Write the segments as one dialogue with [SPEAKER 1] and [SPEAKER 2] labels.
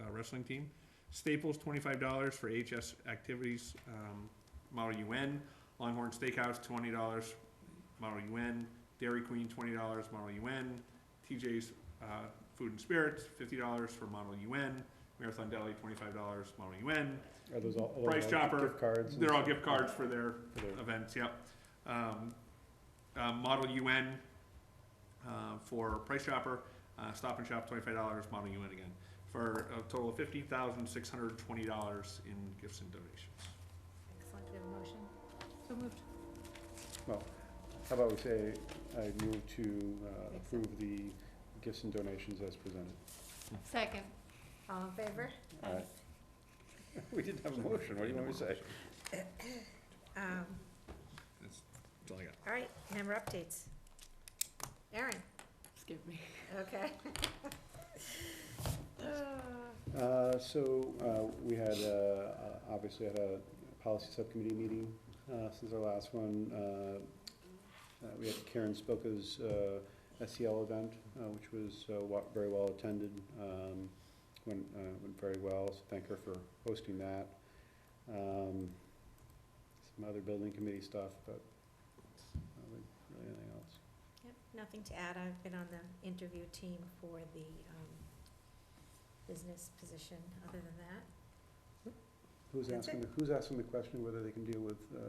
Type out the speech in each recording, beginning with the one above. [SPEAKER 1] uh, wrestling team. Staples, twenty-five dollars for HS activities, um, Model UN. Longhorn Steakhouse, twenty dollars, Model UN. Dairy Queen, twenty dollars, Model UN. TJ's, uh, Food and Spirits, fifty dollars for Model UN. Marathon Deli, twenty-five dollars, Model UN.
[SPEAKER 2] Are those all? are those
[SPEAKER 1] Price
[SPEAKER 2] all
[SPEAKER 1] Chopper,
[SPEAKER 2] Gift cards? and
[SPEAKER 1] They're all
[SPEAKER 2] stuff?
[SPEAKER 1] gift cards for their
[SPEAKER 2] For their-
[SPEAKER 1] events, yep. Um, uh, Model UN, uh, for Price Chopper, uh, Stop and Shop, twenty-five dollars, Model UN again, for a total of fifty thousand, six hundred and twenty dollars in gifts and donations.
[SPEAKER 3] Excellent, do we have a motion? So moved.
[SPEAKER 2] How about we say, I move to uh, approve the gifts and donations as presented?
[SPEAKER 3] Second. All in favor?
[SPEAKER 2] Aye. We didn't have a motion, what do you want me to say?
[SPEAKER 4] Um,
[SPEAKER 1] That's, that's all I got.
[SPEAKER 4] all right, member updates. Aaron,
[SPEAKER 3] Excuse me.
[SPEAKER 4] okay.
[SPEAKER 2] Uh, So, uh, we had, uh, uh, obviously had a policy subcommittee meeting uh, since our last one. Uh, uh, We had Karen Spilka's uh, SEL event, uh, which was uh, wa- very well attended, um, went, uh, went very well, so thank her for hosting that. Um, Some other building committee stuff, but not really really anything else.
[SPEAKER 4] Yep, Nothing to add, I've been on the interview team for the, um, business position, other than that.
[SPEAKER 2] Who's
[SPEAKER 4] That's
[SPEAKER 2] asking,
[SPEAKER 4] it.
[SPEAKER 2] the- who's asking the question whether they can deal with, uh,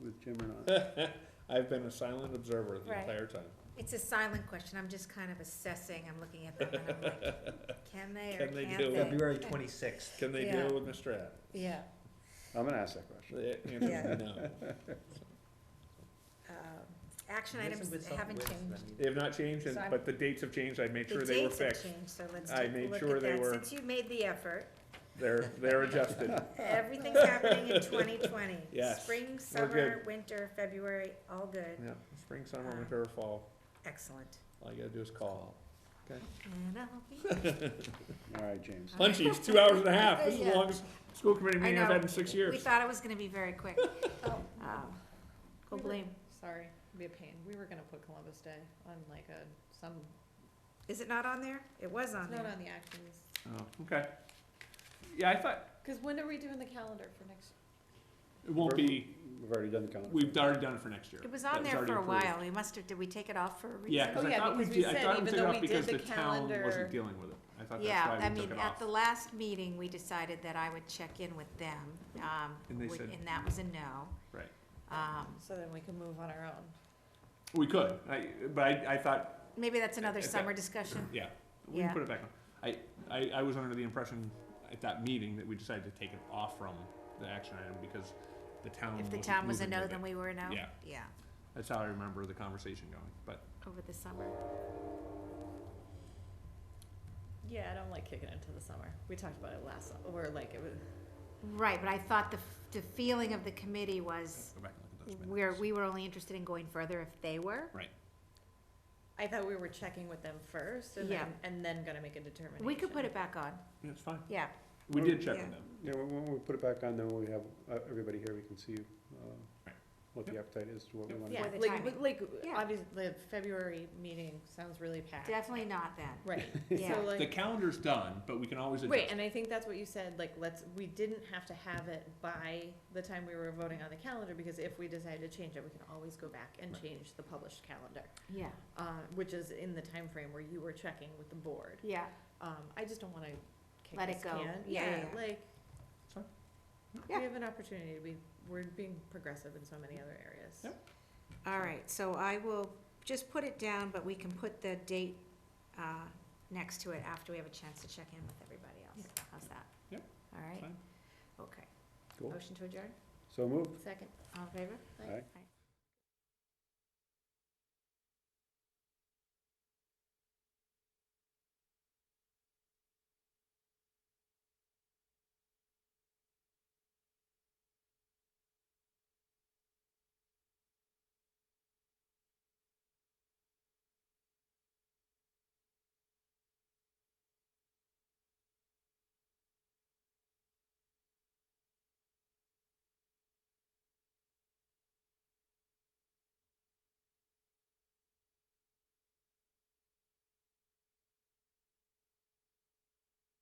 [SPEAKER 2] with Jim or
[SPEAKER 1] Uh,
[SPEAKER 2] not?
[SPEAKER 1] I've been a silent observer the
[SPEAKER 4] Right.
[SPEAKER 1] entire time.
[SPEAKER 4] It's a silent question, I'm just kind of assessing, I'm looking at them and I'm like, can they or
[SPEAKER 1] Can they
[SPEAKER 4] can't
[SPEAKER 1] do it?
[SPEAKER 4] they?
[SPEAKER 5] February twenty-sixth.
[SPEAKER 1] Can they
[SPEAKER 4] Yeah.
[SPEAKER 1] deal with Mr. Ad?
[SPEAKER 4] Yeah,
[SPEAKER 2] I'm gonna ask that question.
[SPEAKER 1] The answer is
[SPEAKER 4] Yeah.
[SPEAKER 1] no.
[SPEAKER 4] um, action items haven't changed.
[SPEAKER 1] They have not changed, and,
[SPEAKER 4] So I'm-
[SPEAKER 1] but the dates have changed, I made sure
[SPEAKER 4] The
[SPEAKER 1] they were
[SPEAKER 4] dates have
[SPEAKER 1] fixed.
[SPEAKER 4] changed, so let's
[SPEAKER 1] I
[SPEAKER 4] take a
[SPEAKER 1] made
[SPEAKER 4] look
[SPEAKER 1] sure
[SPEAKER 4] at
[SPEAKER 1] they
[SPEAKER 4] that,
[SPEAKER 1] were-
[SPEAKER 4] since you made the effort.
[SPEAKER 1] They're, they're adjusted.
[SPEAKER 4] Everything's happening in twenty twenty.
[SPEAKER 1] Yes,
[SPEAKER 4] Spring, summer,
[SPEAKER 1] good.
[SPEAKER 4] winter, February, all good.
[SPEAKER 1] Yeah, spring, summer,
[SPEAKER 4] Uh-huh.
[SPEAKER 1] winter, fall,
[SPEAKER 4] Excellent.
[SPEAKER 1] all you gotta do is call.
[SPEAKER 4] And I'll be,
[SPEAKER 2] All right, James.
[SPEAKER 1] Lunchies, two hours and a half, this is the
[SPEAKER 3] Yeah.
[SPEAKER 1] longest school committee
[SPEAKER 4] I
[SPEAKER 1] meeting I've
[SPEAKER 4] know.
[SPEAKER 1] had in six
[SPEAKER 4] we
[SPEAKER 1] years.
[SPEAKER 4] thought it was gonna be very quick.
[SPEAKER 3] Oh.
[SPEAKER 4] Um, Go
[SPEAKER 3] We were-
[SPEAKER 4] blame.
[SPEAKER 3] Sorry, be a pain. We were gonna put Columbus Day on like a, some,
[SPEAKER 4] Is it not on there? It was on
[SPEAKER 3] it's not
[SPEAKER 4] there.
[SPEAKER 3] on the actions.
[SPEAKER 1] Oh, okay. Yeah, I thought,
[SPEAKER 3] Cause when are we doing the calendar for next?
[SPEAKER 1] it won't be,
[SPEAKER 2] We've already done the calendar.
[SPEAKER 1] we've already done it for next year.
[SPEAKER 4] It was
[SPEAKER 1] That
[SPEAKER 4] on there
[SPEAKER 1] already
[SPEAKER 4] for a
[SPEAKER 1] approved.
[SPEAKER 4] while. We must have, did we take it off for a reason?
[SPEAKER 1] Yeah, cause
[SPEAKER 3] Oh,
[SPEAKER 1] I
[SPEAKER 3] yeah,
[SPEAKER 1] thought we
[SPEAKER 3] because we
[SPEAKER 1] did, I
[SPEAKER 3] said
[SPEAKER 1] thought
[SPEAKER 3] even
[SPEAKER 1] we took
[SPEAKER 3] though
[SPEAKER 1] it
[SPEAKER 3] we
[SPEAKER 1] off because the
[SPEAKER 3] did the
[SPEAKER 1] town
[SPEAKER 3] calendar-
[SPEAKER 1] wasn't dealing with it. I thought
[SPEAKER 4] Yeah,
[SPEAKER 1] that's
[SPEAKER 4] I
[SPEAKER 1] why we took
[SPEAKER 4] mean,
[SPEAKER 1] it
[SPEAKER 4] at
[SPEAKER 1] off.
[SPEAKER 4] the last meeting, we decided that I would check in with them, um,
[SPEAKER 1] And they
[SPEAKER 4] wi-
[SPEAKER 1] said-
[SPEAKER 4] and that was a no.
[SPEAKER 1] Right.
[SPEAKER 4] Um,
[SPEAKER 3] So then we can move on our own.
[SPEAKER 1] We could, I, but I, I thought,
[SPEAKER 4] maybe that's another
[SPEAKER 1] If that-
[SPEAKER 4] summer discussion.
[SPEAKER 1] yeah, we can
[SPEAKER 4] Yeah.
[SPEAKER 1] put it back on. I, I, I was under the impression at that meeting that we decided to take it off from the action item because the town
[SPEAKER 4] If the
[SPEAKER 1] wasn't
[SPEAKER 4] town was a
[SPEAKER 1] moving
[SPEAKER 4] no,
[SPEAKER 1] with it.
[SPEAKER 4] then we were a no?
[SPEAKER 1] Yeah.
[SPEAKER 4] Yeah,
[SPEAKER 1] That's how I remember the conversation going, but
[SPEAKER 4] over the summer.
[SPEAKER 3] Yeah, I don't like kicking into the summer. We talked about it last, or like it was.
[SPEAKER 4] Right, but I thought the, f- the feeling of the committee was,
[SPEAKER 1] go back and look at those minutes.
[SPEAKER 4] where we were only interested in going further if they were.
[SPEAKER 3] I thought we were checking with them first and
[SPEAKER 4] Yeah.
[SPEAKER 3] then, and then gonna make a determination.
[SPEAKER 4] We could put it back on,
[SPEAKER 1] Yeah, it's fine.
[SPEAKER 4] yeah.
[SPEAKER 1] We did check
[SPEAKER 4] Yeah.
[SPEAKER 1] with them.
[SPEAKER 2] Oh, Yeah, when, when we put it back on, then we have, uh, everybody here, we can see, uh,
[SPEAKER 1] Right.
[SPEAKER 2] what the appetite is to what we
[SPEAKER 1] Yep.
[SPEAKER 2] want to
[SPEAKER 3] Yeah,
[SPEAKER 2] do.
[SPEAKER 4] For the
[SPEAKER 3] like,
[SPEAKER 4] timing.
[SPEAKER 3] but like,
[SPEAKER 4] Yeah.
[SPEAKER 3] obviously, the February meeting sounds really packed.
[SPEAKER 4] Definitely not then,
[SPEAKER 3] Right,
[SPEAKER 4] yeah.
[SPEAKER 3] so
[SPEAKER 1] The
[SPEAKER 3] like,
[SPEAKER 1] calendar's done, but we can always adjust.
[SPEAKER 3] wait, and I think that's what you said, like, let's, we didn't have to have it by the time we were voting on the calendar, because if we decide to change it, we can always go back and
[SPEAKER 1] Right.
[SPEAKER 3] change the published calendar,
[SPEAKER 4] Yeah,
[SPEAKER 3] uh, which is in the time frame where you were checking with the board.
[SPEAKER 4] yeah,
[SPEAKER 3] Um, I just don't wanna kick
[SPEAKER 4] Let
[SPEAKER 3] this
[SPEAKER 4] it go.
[SPEAKER 3] can.
[SPEAKER 4] Yeah, yeah, yeah.
[SPEAKER 3] Like,
[SPEAKER 1] It's fine.
[SPEAKER 3] we
[SPEAKER 4] Yeah.
[SPEAKER 3] have an opportunity to be, we're being progressive in so many other areas.
[SPEAKER 1] Yep.
[SPEAKER 4] all right, so I will just put it down, but we can put the date, uh, next to it after we have a chance to check in with everybody else. How's that?
[SPEAKER 1] Yep.
[SPEAKER 4] All right,
[SPEAKER 1] Fine.
[SPEAKER 4] okay.
[SPEAKER 2] Cool.
[SPEAKER 4] Motion to adjourn,
[SPEAKER 2] So moved.
[SPEAKER 3] Second.
[SPEAKER 4] all in favor?
[SPEAKER 2] Aye.
[SPEAKER 4] Aye.